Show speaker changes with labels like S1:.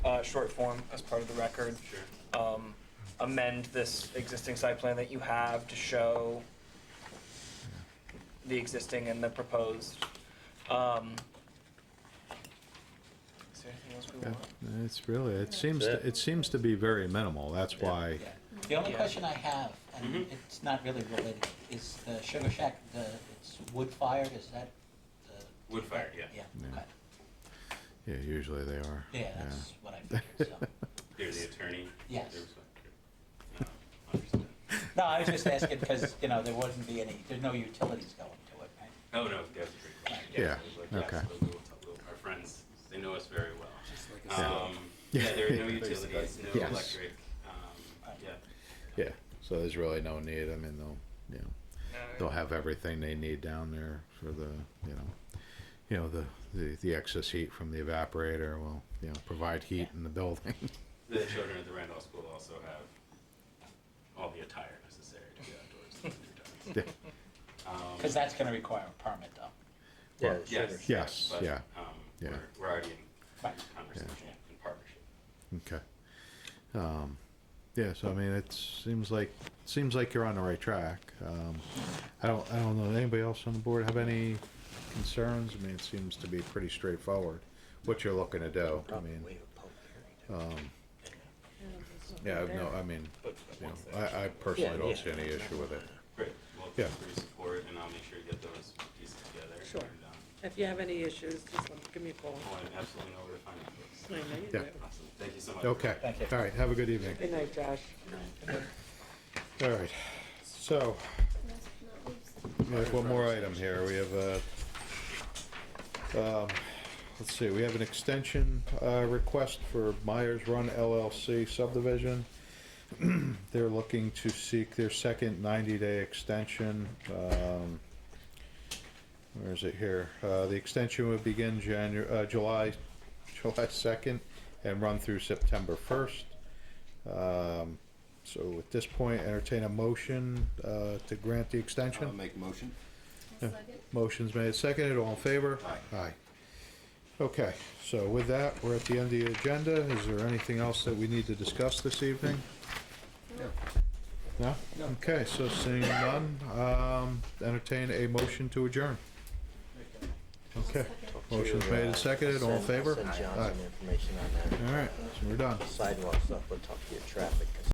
S1: uh, short form as part of the record. Um, amend this existing site plan that you have to show the existing and the proposed. Um, is there anything else we want?
S2: It's really, it seems,
S3: That's
S2: to-
S3: it.
S2: it seems to be very minimal, that's why,
S4: Yeah. The only
S1: Yeah.
S4: question I have, and it's not really related, is the Sugar Shack, the, it's wood fired, is that the?
S3: Wood fired, yeah.
S4: Yeah,
S2: Yeah.
S4: okay.
S2: yeah, usually they are.
S4: Yeah, that's what I figured, so.
S3: They're the attorney.
S4: Yes.
S3: There was a- no, understood.
S4: No, I was just asking because, you know, there wouldn't be any, there's no utilities going to it, right?
S3: No, no, that was a great question.
S2: Yeah,
S3: it was like,
S2: okay.
S3: yes, but we'll- we'll- Our friends, they know us very well.
S2: a Yeah.
S3: Um, Yeah, there are no
S2: Yeah.
S3: utilities, no
S2: Yes.
S3: electric, um, yeah.
S2: Yeah, so there's really no need, I mean, they'll, you know, they'll have everything they need down there for the, you know, you know, the, the, the excess heat from the evaporator will, you know, provide heat in the building.
S3: The children at the Randolph School also have all the attire necessary to be outdoors in the winter
S2: Yeah.
S3: time. Um,
S4: Because that's going to require a permit, though.
S2: Yeah.
S3: Yes.
S2: Yes,
S3: but,
S2: yeah,
S3: um,
S2: yeah.
S3: We're, we're already in
S4: Right.
S3: conversation and partnership.
S2: Okay. Um, yeah, so I mean, it seems like, seems like you're on the right track. Um, I don't, I don't know, anybody else on the board have any concerns? I mean, it seems to be pretty straightforward, what you're looking to do, Oh, I mean,
S4: Waive a public hearing.
S2: um, yeah, I've no, I mean, you know, I, I personally don't see any issue with it.
S3: Great, well,
S2: Yeah.
S3: thanks for your support, and I'll make sure to get those pieces together.
S5: Sure.
S3: and, um,
S5: If you have any issues, just let- give me a call.
S3: Oh, I absolutely know where to find you
S5: I know
S3: folks.
S5: you
S2: Yeah.
S5: do.
S3: Awesome, thank you so much.
S2: Okay,
S4: Thank you.
S2: all right, have a good evening.
S5: Good night, Josh.
S2: All right, so,
S6: Last but not least.
S2: we have one more item here, we have a, um, let's see, we have an extension, uh, request for Myers Run LLC subdivision. They're looking to seek their second ninety-day extension, um, where is it here? Uh, the extension would begin Janu, uh, July, July second and run through September first. Um, so at this point, entertain a motion, uh, to grant the extension?
S7: I'll make a motion.
S6: I'll
S2: Yeah.
S6: second.
S2: Motion's made, seconded, all in favor? Aye. Aye. Okay, so with that, we're at the end of the agenda. Is there anything else that we need to discuss this evening? No? Okay, so seeing none, um, entertain a motion to adjourn. Okay, motion's made and seconded, all in favor?
S8: Send John
S2: Aye.
S8: some information on that
S2: All right, so we're done.
S8: sidewalk stuff, we'll talk to your traffic consultant.